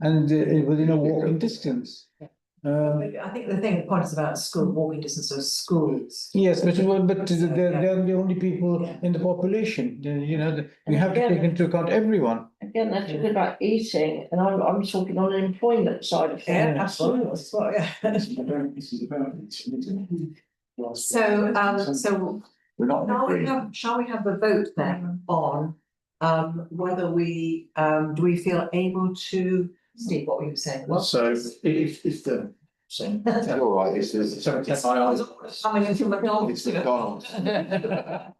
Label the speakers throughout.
Speaker 1: and uh, within a walking distance. Uh,
Speaker 2: I think the thing, the point is about school, walking distance of schools.
Speaker 1: yes, but well, but
Speaker 2: So,
Speaker 1: they're
Speaker 2: yeah.
Speaker 1: they're the only people
Speaker 2: Yeah.
Speaker 1: in the population, The- you know, the- we
Speaker 3: And
Speaker 1: have to
Speaker 3: again-
Speaker 1: take into account everyone.
Speaker 3: Again, that's a good about eating, and I'm, I'm talking on an employment side of
Speaker 2: Yeah,
Speaker 3: things.
Speaker 2: absolutely, that's what- yeah.
Speaker 4: This is about. it's- it's-
Speaker 2: So, um, so
Speaker 4: We're not
Speaker 2: Shall we
Speaker 4: agreeing.
Speaker 2: have, shall we have a vote then on um whether we, um, do we feel able to, Steve, what were you saying? What-
Speaker 4: So if if the same. That's all right, it's it's seventy
Speaker 2: I
Speaker 4: five.
Speaker 2: was always Coming into McDonald's.
Speaker 4: It's McDonald's.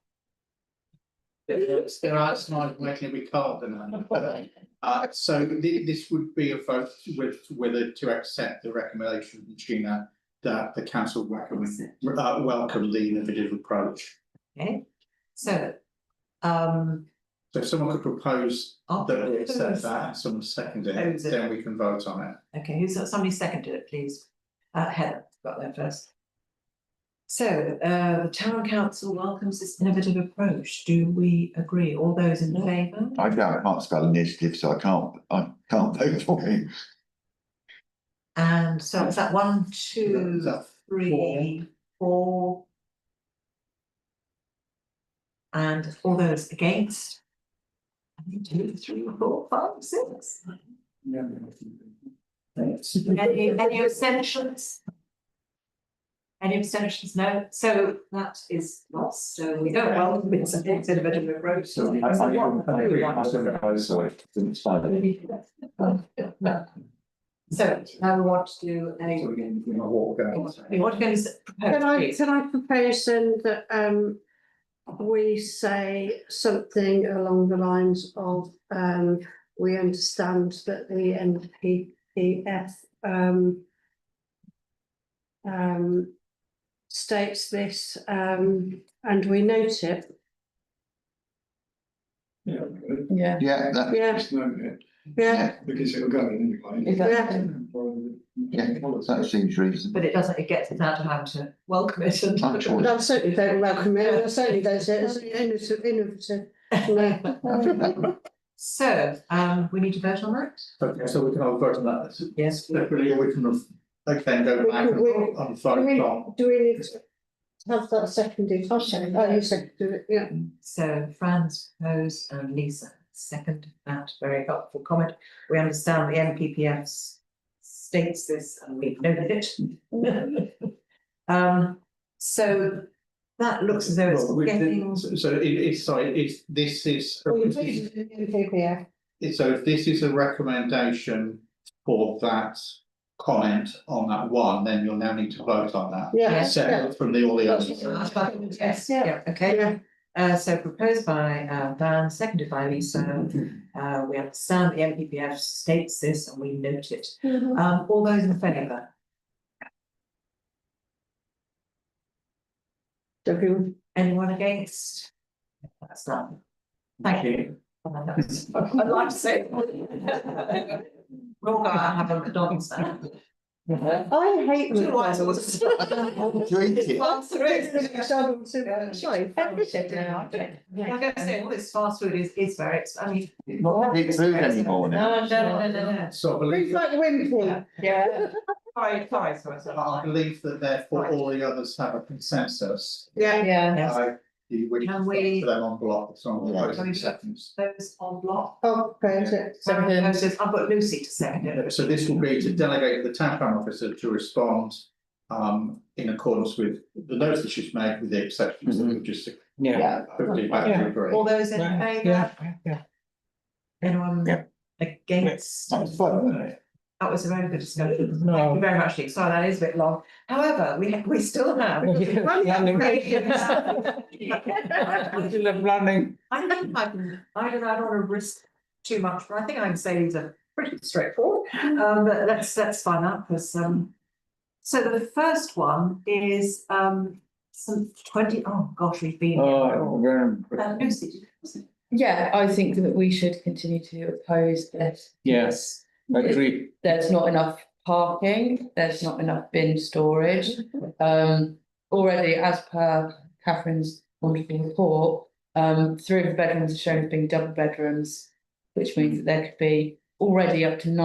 Speaker 5: Yes, there are slides making it recalled and uh, so thi- this would be a vote with whether to accept the recommendation from Gina that the council recommend, uh, welcome the innovative approach.
Speaker 2: Okay, so, um.
Speaker 5: So if someone could propose
Speaker 2: I'll-
Speaker 5: that we accept that and someone second it,
Speaker 2: Propose Oh, it.
Speaker 5: then we can vote on it.
Speaker 2: Okay, who's, somebody seconded it, please. Uh, Heather got there first. So, uh, the town council welcomes this innovative approach. Do we agree? All those in favour?
Speaker 4: I don't, I can't spell initiative, so I can't, I can't vote for it.
Speaker 2: And so is that one, two,
Speaker 5: Is that
Speaker 2: three, four? And all those against? I think two, three, four, five, six. Any, any abstentions? Any abstentions? No, so that is lost, so we don't welcome it's a bit of a road.
Speaker 4: So I- I- I agree, I still propose, so it doesn't spell it.
Speaker 2: So now we want to do a,
Speaker 5: So we're going to walk out.
Speaker 2: we want to go and
Speaker 3: Can I,
Speaker 2: propose.
Speaker 3: can I propose then that, um, we say something along the lines of, um, we understand that the NPPF, um, um, states this, um, and we note it,
Speaker 6: Yeah,
Speaker 4: Yeah, that,
Speaker 3: yeah, yeah,
Speaker 4: yeah,
Speaker 7: Because it'll go in anyway.
Speaker 3: yeah.
Speaker 4: yeah, that seems reasonable.
Speaker 2: But it doesn't, it gets us out of having to welcome it and.
Speaker 4: I'm sure.
Speaker 3: I certainly don't welcome it, I certainly don't say it's innovative, innovative, no.
Speaker 2: So, um, we need to vote on that?
Speaker 5: Okay, so we can all vote on that
Speaker 2: Yes.
Speaker 5: separately, or we can, okay, then go back and
Speaker 3: We-
Speaker 5: vote on vote on.
Speaker 3: Do we need to have that seconded? I'll second. Oh, you seconded it, yeah.
Speaker 2: So Fran's proposed and Lisa second that very helpful comment. We understand the NPPF states this and we've noted it. Um, so that looks as though it's
Speaker 5: Well, we did-
Speaker 2: getting,
Speaker 5: So so it is, sorry, it's, this is,
Speaker 3: Well, you've voted in favour, yeah.
Speaker 5: it's- so if this is a recommendation for that comment on that one, then you'll now need to vote on that.
Speaker 3: Yeah,
Speaker 2: Yes,
Speaker 3: yeah,
Speaker 5: Separate from the all the others.
Speaker 2: yes, yeah, okay.
Speaker 3: yeah.
Speaker 2: Uh, so proposed by, uh, Van, seconded by Lisa.
Speaker 5: Mm-hmm.
Speaker 2: Uh, we understand the NPPF states this and we note it. Um, all those in favour?
Speaker 3: Everyone-
Speaker 2: Anyone against? That's done. Thank you. I'd like to say. We're all gonna have a McDonald's now.
Speaker 3: I hate.
Speaker 2: Two white
Speaker 3: McDonald's.
Speaker 4: Drink it.
Speaker 2: One, three.
Speaker 3: McDonald's, uh, sorry, every second, I think.
Speaker 2: Like I say, all this fast food is, is very, ex- I mean.
Speaker 4: Not eat food anymore
Speaker 2: No,
Speaker 4: now.
Speaker 2: no, no, no, no.
Speaker 5: So I
Speaker 3: It's
Speaker 5: believe,
Speaker 3: like the wind thing.
Speaker 6: yeah.
Speaker 2: Sorry, sorry, sorry,
Speaker 5: I
Speaker 2: sorry.
Speaker 5: believe that therefore all the others have a consensus.
Speaker 3: Yeah,
Speaker 6: Yeah.
Speaker 2: Yes.
Speaker 5: I, you would
Speaker 2: Can we-
Speaker 5: for them on block, it's on
Speaker 4: Yeah.
Speaker 5: all those seconds.
Speaker 2: Those on block.
Speaker 3: oh, praise it.
Speaker 2: Sorry,
Speaker 6: Second.
Speaker 2: those is- I've got Lucy to second it.
Speaker 5: So this will be to delegate the town plan officer to respond um in accordance with the notice that she's made, with the exceptions that we've just
Speaker 1: Yeah,
Speaker 5: quickly back to agree.
Speaker 2: All those in
Speaker 1: yeah,
Speaker 2: favour?
Speaker 1: yeah, yeah.
Speaker 2: Anyone
Speaker 4: Yeah.
Speaker 2: against?
Speaker 4: That's fun, isn't it?
Speaker 2: That was a very good discussion.
Speaker 1: No.
Speaker 2: Thank you very much, Nick. Sorry, that is a bit long. However, we, we still have.
Speaker 1: Planning.
Speaker 2: I
Speaker 1: Still have planning.
Speaker 2: think I can, I don't, know, I don't want to risk too much, but I think I can say these are pretty straightforward. Um, but let's, let's find out because, um, so the first one is, um, some twenty, oh gosh, we've been.
Speaker 1: Oh,
Speaker 2: here.
Speaker 1: very-
Speaker 2: Uh, Lucy, did you- was it?
Speaker 6: Yeah, I think that we should continue to oppose this.
Speaker 1: yes, agree.
Speaker 6: There's not enough parking, there's not enough bin storage. Um, already as per Catherine's wonderful report, um, three of the bedrooms are shown as being double bedrooms, which means that there could be already up to nine.